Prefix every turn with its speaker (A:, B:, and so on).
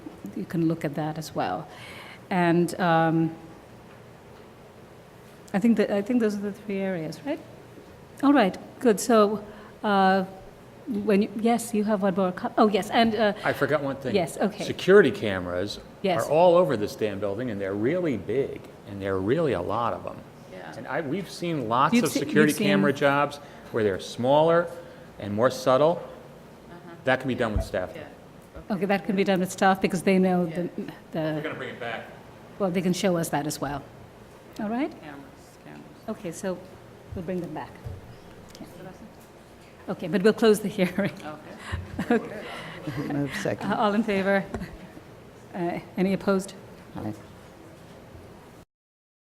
A: you can look at that as well. And um, I think that, I think those are the three areas, right? All right, good. So uh, when you, yes, you have one more. co- Oh, yes, and uh,
B: I forgot one thing.
A: Yes, okay.
B: Security cameras
A: Yes.
B: are all over this damn building, and they're really big, and there are really a lot of them. And I, we've seen lots
A: You've
B: of
A: se- you've
B: security
A: seen-
B: camera jobs where they're smaller and more subtle. That can be done with staff.
A: okay, that can be done with staff because they know the,
B: We're
A: the
B: gonna bring it back.
A: well, they can show us that as well. All right.
C: Cameras, cameras.
A: Okay, so we'll bring them back. Okay, but we'll close the hearing.
C: Okay.
D: Move second.
A: Uh, All in favor? Uh, Any opposed?
D: Aye.